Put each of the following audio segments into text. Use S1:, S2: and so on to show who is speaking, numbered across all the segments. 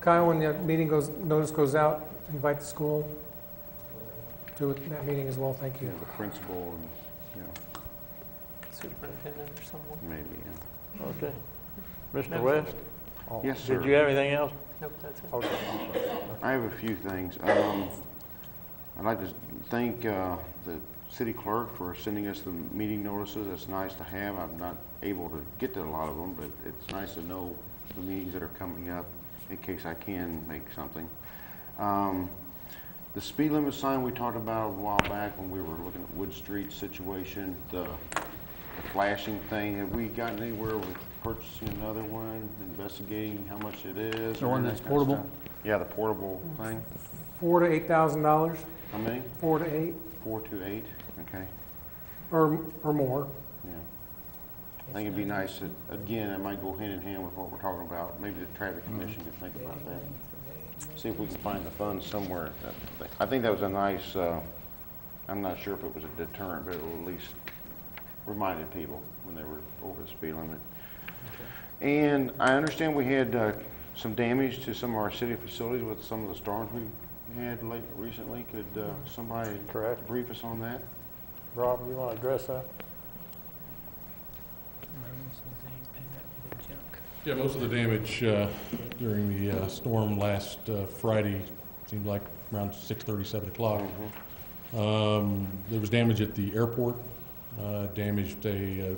S1: Kyle, when the meeting goes, notice goes out, invite the school to that meeting as well, thank
S2: Yeah,
S1: you.
S2: the principal and, you know,
S3: superintendent or someone.
S2: maybe, yeah.
S4: Okay. Mr.
S3: No.
S4: West,
S2: Yes, sir.
S4: Oh, did you have anything else?
S3: Nope, that's it.
S2: I have a few things. Um, I'd like to thank uh, the city clerk for sending us the meeting notices. It's nice to have. I'm not able to get to a lot of them, but it's nice to know the meetings that are coming up in case I can make something. Um, The speed limit sign we talked about a while back when we were looking at Wood Street situation, the the flashing thing, have we gotten anywhere with purchasing another one, investigating how much it is?
S5: The
S2: or
S5: one
S2: that
S5: that's
S2: kind of
S5: portable?
S2: stuff? Yeah, the portable thing.
S1: Four to eight thousand dollars,
S2: How many?
S1: four to eight,
S2: Four to eight? Okay,
S1: or, or more.
S2: yeah. I think it'd be nice, that again, it might go hand in hand with what we're talking about. Maybe the traffic commission can think about that. See if we can find the funds somewhere. I think that was a nice, uh, I'm not sure if it was a deterrent, but it at least reminded people when they were over the speed limit. And I understand we had uh, some damage to some of our city facilities with some of the storms we had late, recently. Could uh, somebody
S4: Correct.
S2: brief us on that?
S4: Rob, you want to address that?
S6: Yeah, most of the damage uh, during the uh, storm last uh, Friday, seemed like around 6:30, 7 o'clock.
S2: Mm-hmm.
S6: Um, There was damage at the airport, uh, damaged a,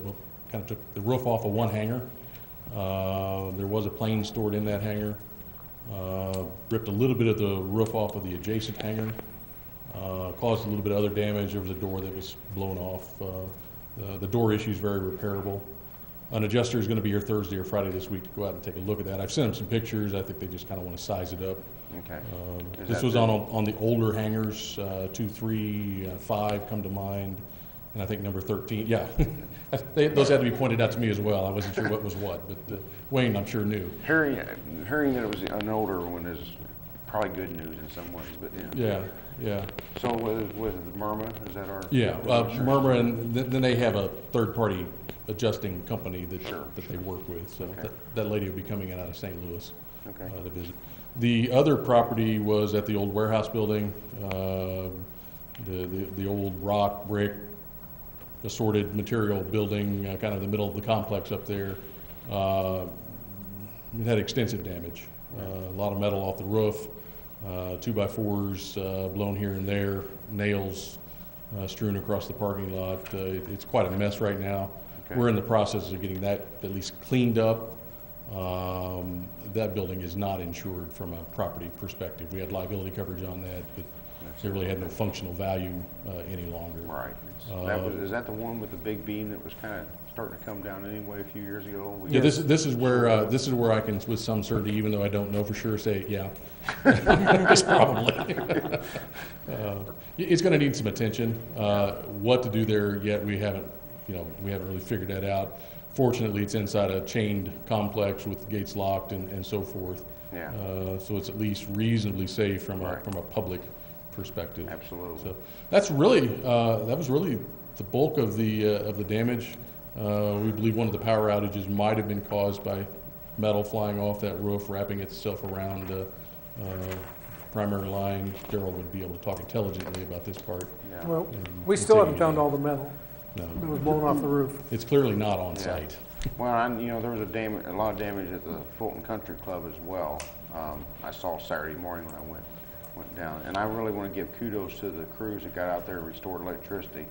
S6: kind of took the roof off of one hangar. Uh, There was a plane stored in that hangar. Uh, Ripped a little bit of the roof off of the adjacent hangar, Uh, caused a little bit of other damage. There was a door that was blown off. Uh, uh, The door issue is very repairable. An adjuster is going to be here Thursday or Friday this week to go out and take a look at that. I've sent them some pictures. I think they just kind of want to size it up.
S2: Okay.
S6: Um,
S2: Is
S6: This
S2: that
S6: was
S2: the-
S6: on, a- on the older hangars, uh, two, three, uh, five come to mind, and I think number 13, yeah. They- Those had to be pointed out to me as well. I wasn't sure what was what, but uh, Wayne, I'm sure knew.
S2: Hearing, hearing that it was an older one is probably good news in some ways, but yeah.
S6: Yeah, yeah,
S2: So with, with Murma, is that our?
S6: yeah.
S2: our
S6: Uh,
S2: insurance?
S6: Murmur, and th- then they have a third-party adjusting company that,
S2: Sure,
S6: that they work with, so
S2: Okay.
S6: that- that lady will be coming in out of St. Louis.
S2: Okay,
S6: uh, to visit. The other property was at the old warehouse building, um, the, the- the old rock, brick, assorted material building, uh, kind of the middle of the complex up there. Uh, It had extensive damage, Uh, a lot of metal off the roof, uh, two-by-fours uh, blown here and there, nails uh, strewn across the parking lot. Uh, it- It's quite a mess right now.
S2: Okay.
S6: We're in the process of getting that at least cleaned up. Um, That building is not insured from a property perspective. We had liability coverage on that, but it really had no functional value uh, any longer.
S2: all right.
S6: Uh,
S2: That was, is that the one with the big beam that was kind of starting to come down anyway a few years ago? We-
S6: Yeah, this, this is where, uh, this is where I can, with some certainty, even though I don't know for sure, say, yeah. It's probably. Uh, It's gonna need some attention. Uh, What to do there yet, we haven't, you know, we haven't really figured that out. Fortunately, it's inside a chained complex with gates locked and, and so forth.
S2: Yeah.
S6: Uh, So it's at least reasonably safe from a,
S2: Right.
S6: from a public perspective.
S2: Absolutely.
S6: uh, So that's really, uh, that was really the bulk of the, uh, of the damage. Uh, We believe one of the power outages might have been caused by metal flying off that roof, wrapping itself around the uh, primary line. Daryl would be able to talk intelligently about this part.
S2: Yeah.
S1: Well,
S6: and-
S1: we still
S6: and
S1: haven't
S6: take it
S1: found all the metal
S6: down.
S1: that
S6: No,
S1: was blown off the roof.
S6: it's clearly not on
S2: Yeah.
S6: site.
S2: Well, I, you know, there was a damage, a lot of damage at the Fulton Country Club as well. Um, I saw Saturday morning when I went, went down. And I really want to give kudos to the crews that got out there and restored electricity.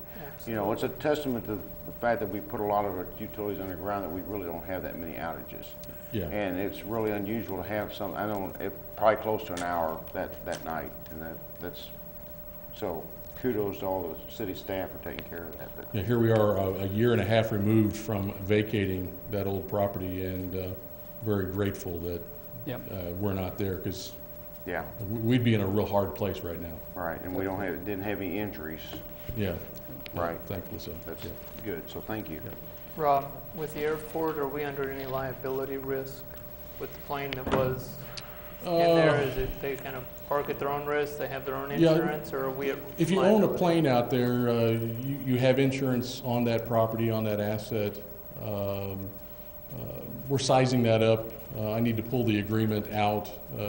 S2: You know, it's a testament to the fact that we put a lot of our utilities underground that we really don't have that many outages.
S6: Yeah.
S2: And it's really unusual to have some, I don't, it, probably close to an hour that, that night. And that, that's, so kudos to all the city staff for taking care of that. But
S6: Yeah, here we are, uh, a a year and a half removed from vacating that old property, and uh, very grateful that
S5: Yep.
S6: uh, we're not there, because
S2: Yeah,
S6: we'd be in a real hard place right now.
S2: right. And we don't have, didn't have any injuries.
S6: Yeah.
S2: Right.
S6: Thankfully so.
S2: That's
S6: Yeah.
S2: good, so thank you.
S3: Rob, with the airport, are we under any liability risk with the plane that was in there?
S6: Uh,
S3: Is it, they kind of park at their own risk, they have their own
S6: Yeah,
S3: insurance, or are we at
S6: Uh, If you own a
S3: liability?
S6: plane out there, uh, you you have insurance on that property, on that asset. Um, uh, We're sizing that up. Uh, I need to pull the agreement out uh,